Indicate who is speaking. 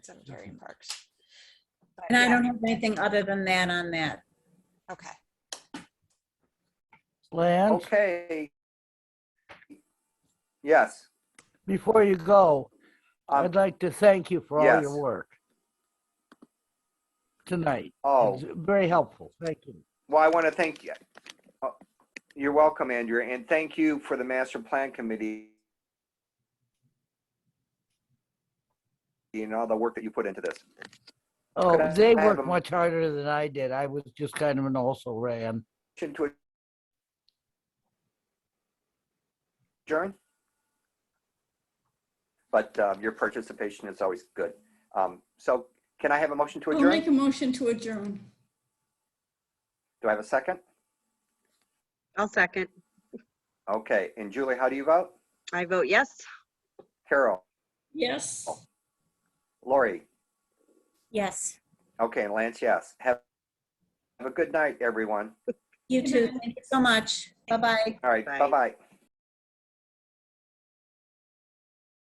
Speaker 1: Cemetery and Parks. But
Speaker 2: And I
Speaker 1: yeah,
Speaker 2: don't have anything other than that on that.
Speaker 1: Okay,
Speaker 3: Lance,
Speaker 4: Okay. Yes,
Speaker 3: before you go,
Speaker 4: Um,
Speaker 3: I'd like to thank you for all
Speaker 4: yes.
Speaker 3: your work tonight.
Speaker 4: oh,
Speaker 3: It's Very helpful. Thank you.
Speaker 4: well, I want to thank you. Oh, You're welcome, Andrea, and thank you for the master plan committee. And all the work that you put into this.
Speaker 3: Oh,
Speaker 4: I
Speaker 3: they
Speaker 4: have a-
Speaker 3: worked much harder than I did. I was just kind of an also ran.
Speaker 4: Motion to adjourn? But um, your participation is always good. Um, So can I have a motion to
Speaker 5: I'll make
Speaker 4: adjourn?
Speaker 5: a motion to adjourn.
Speaker 4: Do I have a second?
Speaker 6: I'll second.
Speaker 4: Okay, and Julie, how do you vote?
Speaker 6: I vote yes.
Speaker 4: Carol,
Speaker 5: Yes.
Speaker 4: Lori,
Speaker 2: Yes.
Speaker 4: okay, and Lance, yes. Have have a good night, everyone.
Speaker 2: You too. Thank you so much. Bye-bye.
Speaker 4: All right,
Speaker 6: Bye.
Speaker 4: bye-bye.